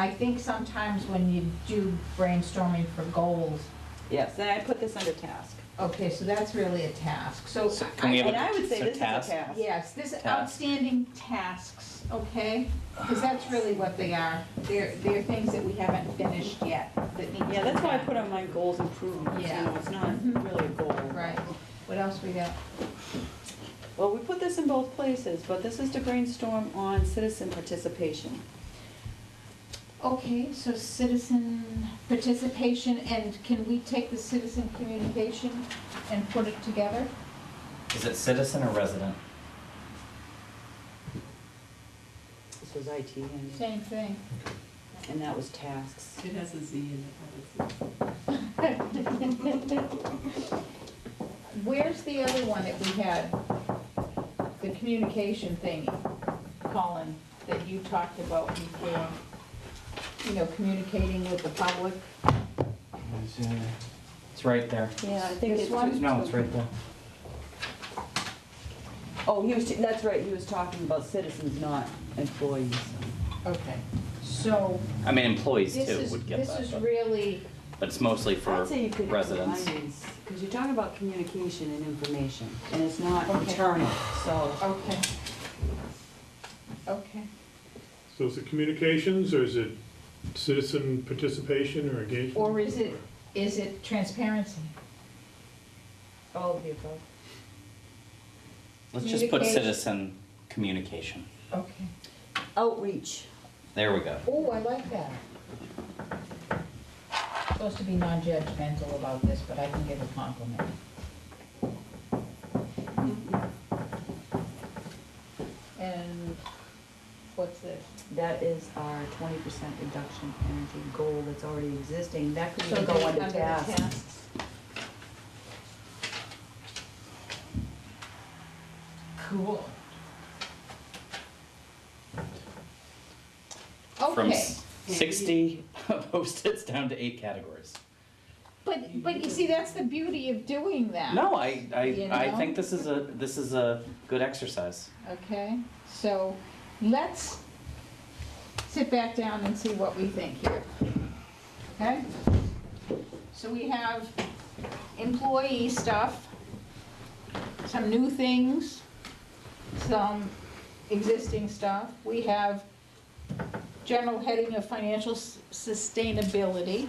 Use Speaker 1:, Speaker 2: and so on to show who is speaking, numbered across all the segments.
Speaker 1: I think sometimes when you do brainstorming for goals,
Speaker 2: Yes, and I put this under task.
Speaker 1: okay, so that's really a task, so.
Speaker 3: So
Speaker 1: I-
Speaker 3: can we have
Speaker 2: And
Speaker 3: a-
Speaker 2: I would say
Speaker 3: so
Speaker 2: this is a
Speaker 3: task?
Speaker 2: task.
Speaker 1: Yes, this
Speaker 3: Task.
Speaker 1: outstanding tasks, okay? Because that's really what they are. They're, they're things that we haven't finished yet that need to be
Speaker 2: Yeah, that's why I
Speaker 1: done.
Speaker 2: put on my goals improvements, you
Speaker 1: Yeah.
Speaker 2: know, it's not really a goal.
Speaker 1: Right. What else we got?
Speaker 2: Well, we put this in both places, but this is to brainstorm on citizen participation.
Speaker 1: Okay, so citizen participation, and can we take the citizen communication and put it together?
Speaker 3: Is it citizen or resident?
Speaker 2: This was IT and,
Speaker 1: Same thing.
Speaker 2: and that was tasks.
Speaker 4: It has a Z in it. but it's-
Speaker 1: Where's the other one that we had? The communication thing, Colin, that you talked about before? You know, communicating with the public?
Speaker 5: It's, uh,
Speaker 3: It's right there.
Speaker 2: Yeah, I think
Speaker 1: This
Speaker 2: it's.
Speaker 1: one?
Speaker 5: No, it's right there.
Speaker 2: Oh, he was, that's right, he was talking about citizens, not employees.
Speaker 1: Okay, so
Speaker 3: I mean, employees
Speaker 1: this
Speaker 3: too
Speaker 1: is,
Speaker 3: would get
Speaker 1: this
Speaker 3: that,
Speaker 1: is
Speaker 3: but-
Speaker 1: really,
Speaker 3: but it's mostly for
Speaker 2: I'd say you could
Speaker 3: residents.
Speaker 2: Because you're talking about communication and information, and it's not
Speaker 1: Okay.
Speaker 2: internal, so.
Speaker 1: okay. Okay,
Speaker 6: So is it communications, or is it citizen participation or engagement?
Speaker 1: or is it, is it transparency? All of the above.
Speaker 3: Let's just put
Speaker 1: communication.
Speaker 3: citizen communication.
Speaker 1: Okay.
Speaker 2: Outreach.
Speaker 3: There we go.
Speaker 1: Oh, I like that. Supposed to be non-judgmental about this, but I can give a compliment. And what's this?
Speaker 2: That is our twenty percent reduction energy goal that's already existing, that could
Speaker 1: So
Speaker 2: even go
Speaker 1: they're
Speaker 2: under
Speaker 1: the
Speaker 2: task.
Speaker 1: tasks. Cool.
Speaker 3: From
Speaker 1: Okay,
Speaker 3: s- sixty post-its down to eight categories.
Speaker 1: but, but you see, that's the beauty of doing that.
Speaker 3: No, I, I,
Speaker 1: You
Speaker 3: I
Speaker 1: know?
Speaker 3: think this is a, this is a good exercise.
Speaker 1: Okay, so let's sit back down and see what we think here. Okay? So we have employee stuff, some new things, some existing stuff. We have general heading of financial s- sustainability,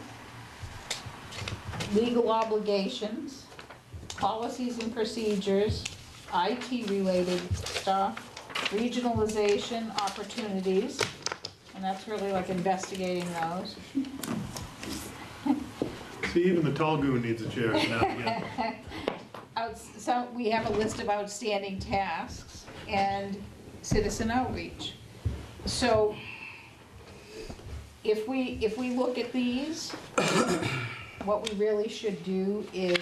Speaker 1: legal obligations, policies and procedures, IT-related stuff, regionalization opportunities, and that's really like investigating those.
Speaker 6: See, even the tall goon needs a chair now and again.
Speaker 1: Outs- So we have a list of outstanding tasks and citizen outreach. So if we, if we look at these, what we really should do is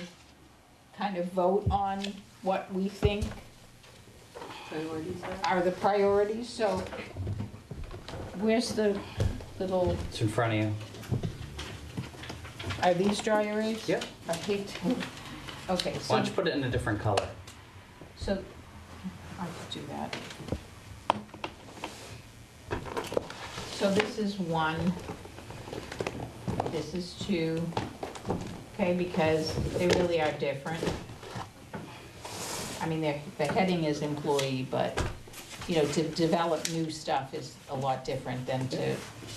Speaker 1: kind of vote on what we think
Speaker 2: Priorities are?
Speaker 1: are the priorities, so where's the little,
Speaker 3: It's in front of you.
Speaker 1: are these dry erase?
Speaker 3: Yep.
Speaker 1: I hate to, okay,
Speaker 3: Why
Speaker 1: so,
Speaker 3: don't you put it in a different color?
Speaker 1: so, I could do that. So this is one, this is two, okay, because they really are different. I mean, they're- the heading is employee, but, you know, to develop new stuff is a lot different than to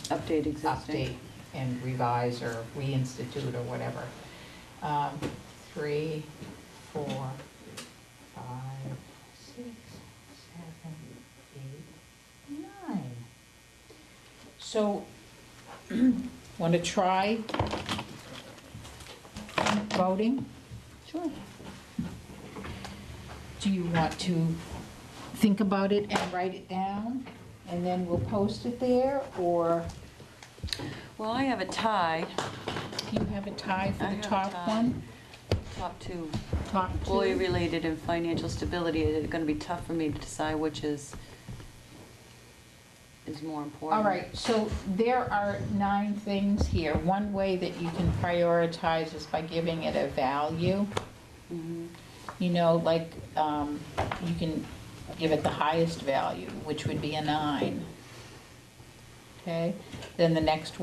Speaker 2: Update existing.
Speaker 1: update and revise or reinstitute or whatever. Um, Three, four, five, six, seven, eight, nine. So, want to try voting? Sure. Do you want to think about it and write it down, and then we'll post it there, or?
Speaker 2: Well, I have a tie,
Speaker 1: You have a tie for
Speaker 2: I
Speaker 1: the
Speaker 2: have a
Speaker 1: top
Speaker 2: tie.
Speaker 1: one,
Speaker 2: top two,
Speaker 1: top two?
Speaker 2: employee-related and financial stability, it's gonna be tough for me to decide which is, is more important.
Speaker 1: All right, so there are nine things here. One way that you can prioritize is by giving it a value.
Speaker 2: Mhm.
Speaker 1: You know, like, um, you can give it the highest value, which would be a nine. okay? Then the next